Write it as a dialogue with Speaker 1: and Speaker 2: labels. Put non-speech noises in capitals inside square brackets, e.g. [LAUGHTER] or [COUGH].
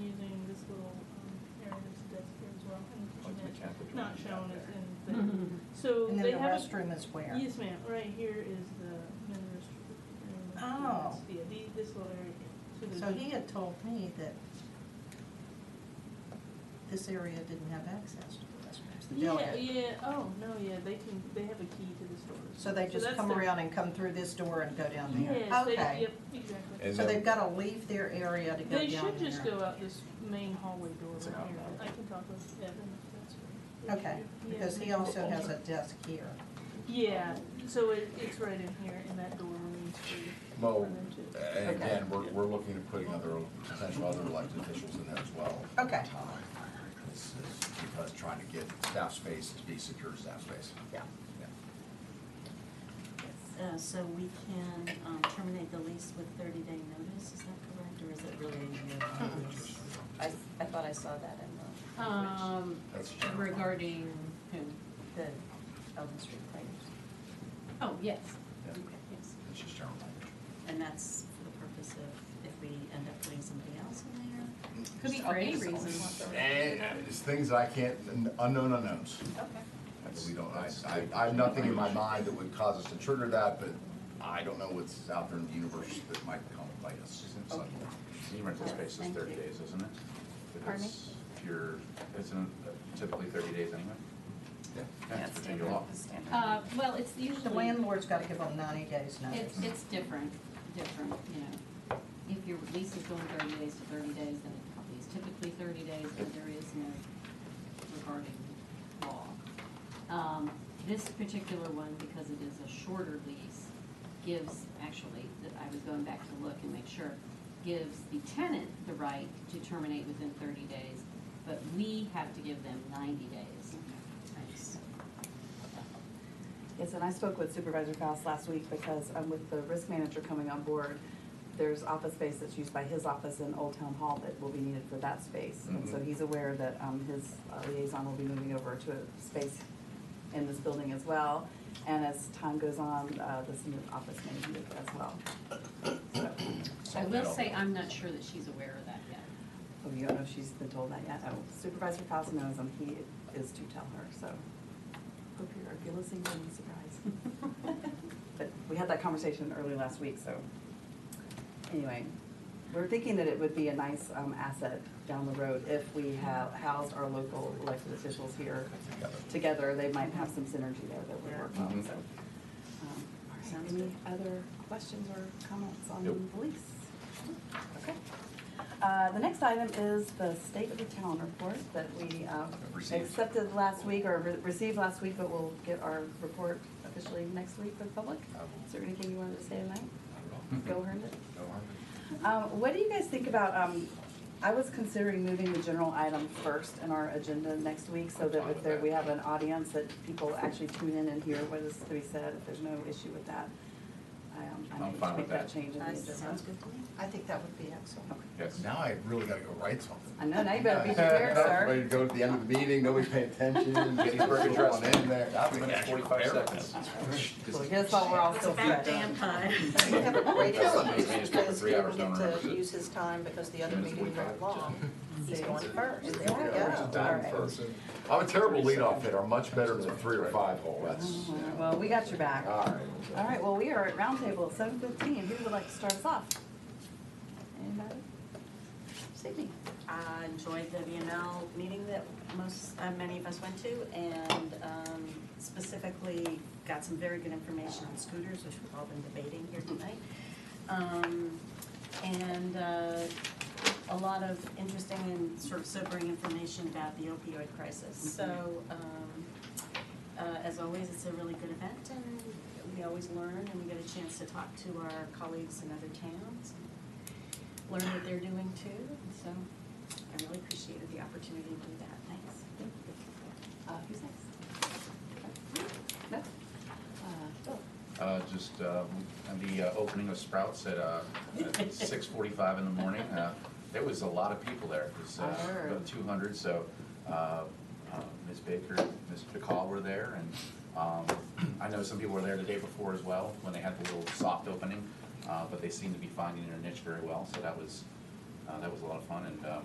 Speaker 1: um, zone is in, the
Speaker 2: Mhm.
Speaker 1: so
Speaker 3: And
Speaker 1: they
Speaker 3: then the
Speaker 1: have a
Speaker 3: restroom is where?
Speaker 1: Yes, ma'am, right here is the men's restroom.
Speaker 3: Oh.
Speaker 1: Yeah, the- this little area here. the-
Speaker 3: So he had told me that this area didn't have access to the restrooms, the
Speaker 1: Yeah,
Speaker 3: delegate.
Speaker 1: yeah, oh, no, yeah, they can, they have a key to this door.
Speaker 3: So they just
Speaker 1: that's
Speaker 3: come
Speaker 1: their-
Speaker 3: around and come through this door and go down there?
Speaker 1: Yes, they,
Speaker 3: Okay.
Speaker 1: yep, exactly.
Speaker 4: And
Speaker 3: So
Speaker 4: then-
Speaker 3: they've gotta leave their area to go down
Speaker 1: They
Speaker 3: there?
Speaker 1: should just go out this main hallway door
Speaker 4: It's
Speaker 1: right
Speaker 4: out.
Speaker 1: here. I can talk with Evan if that's.
Speaker 3: Okay, because he also has a desk here.
Speaker 1: Yeah, so it, it's right in here and that door remains free.
Speaker 4: Mo,
Speaker 1: for them to-
Speaker 4: and again, we're, we're looking at putting other, potential other elected officials in there as well.
Speaker 3: Okay.
Speaker 4: This is Because trying to get staff space to be secure staff space.
Speaker 3: Yeah.
Speaker 2: Uh, So we can um, terminate the lease with thirty-day notice, is that correct, or is it really a year long lease?
Speaker 5: Mm-hmm. I, I thought I saw that in the.
Speaker 2: Um,
Speaker 4: That's general.
Speaker 2: regarding who?
Speaker 5: The Elm Street claims.
Speaker 2: Oh, yes.
Speaker 4: Yeah.
Speaker 2: Okay, yes.
Speaker 4: That's just general language.
Speaker 2: And that's for the purpose of if we end up putting somebody else in there?
Speaker 5: Could be for any reason.
Speaker 4: And uh, it's things that I can't, unknown unknowns.
Speaker 5: Okay.
Speaker 4: That We don't, I, I, I have nothing in my mind that would cause us to trigger that, but I don't know what's out there in the universe that might come and bite us suddenly.
Speaker 6: Any rental space is
Speaker 2: Thank
Speaker 6: thirty
Speaker 2: you.
Speaker 6: days, isn't it? If
Speaker 5: Pardon me?
Speaker 6: it's- If you're, isn't it uh, typically thirty days anyway?
Speaker 4: Yeah.
Speaker 5: Yeah,
Speaker 6: That's
Speaker 5: standard,
Speaker 6: law.
Speaker 5: standard.
Speaker 7: Uh, well, it's
Speaker 3: The
Speaker 7: usually,
Speaker 3: landlord's gotta give them ninety days notice.
Speaker 7: it's, it's different, different, you know. If your lease is going thirty days to thirty days, then it probably is typically thirty days, but there is no regarding law. Um, this particular one, because it is a shorter lease, gives, actually, that I was going back to look and make sure, gives the tenant the right to terminate within thirty days, but we have to give them ninety days. Thanks.
Speaker 8: Yes, and I spoke with Supervisor Faust last week because um, with the risk manager coming on board, there's office space that's used by his office in Old Town Hall that will be needed for that space. And so
Speaker 6: Mhm.
Speaker 8: he's aware that um, his uh, liaison will be moving over to a space in this building as well. And as time goes on, uh, this new office may be moved as well. So-
Speaker 7: I will say, I'm not sure that she's aware of that yet.
Speaker 8: Oh, you don't know if she's been told that yet? Oh, Supervisor Faust knows him, he is to tell her, so. Hope you're, if you're listening, don't be surprised. But we had that conversation early last week, so. Anyway, we're thinking that it would be a nice um, asset down the road if we have housed our local elected officials here
Speaker 4: Together.
Speaker 8: together. They might have some synergy there that would work well,
Speaker 6: Mhm.
Speaker 8: so. um, all right,
Speaker 2: Sounds
Speaker 8: Any
Speaker 2: good.
Speaker 8: other questions or comments on
Speaker 6: Nope.
Speaker 8: the lease? Okay. Uh, The next item is the state of the town report that we uh,
Speaker 6: Received.
Speaker 8: accepted last week or re- received last week, but we'll get our report officially next week for the public.
Speaker 4: I will- Mm-hmm.
Speaker 8: Is there anything you wanted to say tonight?
Speaker 4: I will.
Speaker 8: Go, Herndon.
Speaker 4: No harm.
Speaker 8: Um, what do you guys think about, um, I was considering moving the general item first in our agenda next week so that if there, we have an audience that people actually tune in and hear what is to be said, if there's no issue with that. I, um, I
Speaker 6: I'm
Speaker 8: need
Speaker 6: fine
Speaker 8: to make
Speaker 6: with
Speaker 8: that
Speaker 6: that.
Speaker 8: change in the
Speaker 2: That
Speaker 8: agenda.
Speaker 2: sounds good to me.
Speaker 3: I think that would be excellent.
Speaker 6: Yes.
Speaker 4: Now I really gotta go write something.
Speaker 8: I know, now
Speaker 4: [LAUGHS]
Speaker 8: you better be
Speaker 6: [LAUGHS]
Speaker 8: prepared,
Speaker 4: Ready
Speaker 8: sir.
Speaker 4: to go to the end of the meeting, nobody pay [LAUGHS] attention,
Speaker 6: Gettysburg Address.
Speaker 4: Going in there. That'd be
Speaker 6: Minutes,
Speaker 4: actually
Speaker 6: forty-five
Speaker 4: fair.
Speaker 6: seconds.
Speaker 4: [LAUGHS]
Speaker 8: Well, guess what, we're all
Speaker 2: It's
Speaker 8: still
Speaker 2: about
Speaker 8: fresh.
Speaker 2: damn time.
Speaker 3: We have a great
Speaker 6: That's
Speaker 3: excuse
Speaker 6: amazing. It's been
Speaker 3: because he
Speaker 6: three hours,
Speaker 3: will
Speaker 6: don't
Speaker 3: get
Speaker 6: remember
Speaker 3: to
Speaker 6: it.
Speaker 3: use his time because the other
Speaker 6: Minutes,
Speaker 3: meeting went
Speaker 6: 45.
Speaker 3: long. He's
Speaker 8: See?
Speaker 3: going first, there we
Speaker 4: Yeah, we
Speaker 3: go.
Speaker 4: should
Speaker 8: All
Speaker 4: dive
Speaker 8: right.
Speaker 4: first. I'm a terrible leadoff hitter, I'm much better than a three or five hole, that's,
Speaker 8: Oh, Well, we got your back.
Speaker 4: all right.
Speaker 8: All right, well, we are at roundtable at seven fifteen. Who would like to start us off? Anybody?
Speaker 2: Sydney.
Speaker 5: I enjoyed the VML meeting that most, uh, many of us went to and, um, specifically got some very good information on scooters, which we've all been debating here tonight. Um, and, uh, a lot of interesting and sort of sobering information about the opioid crisis. So, um, uh, as always, it's a really good event and we always learn and we get a chance to talk to our colleagues in other towns. and Learn what they're doing too, and so I really appreciated the opportunity to do that, thanks.
Speaker 8: Uh, who's next? No? Uh, Phil?
Speaker 6: Uh, just, um, and the uh, opening of Sprouts at, uh,
Speaker 8: [LAUGHS]
Speaker 6: at six forty-five in the morning, uh, there was a lot of people there. It was,
Speaker 8: I
Speaker 6: uh,
Speaker 8: heard.
Speaker 6: about two hundred, so, uh, uh, Ms. Baker, Ms. DeCall were there, and, um, I know some people were there the day before as well, when they had the little soft opening, uh, but they seemed to be finding their niche very well, so that was, uh, that was a lot of fun, and, um,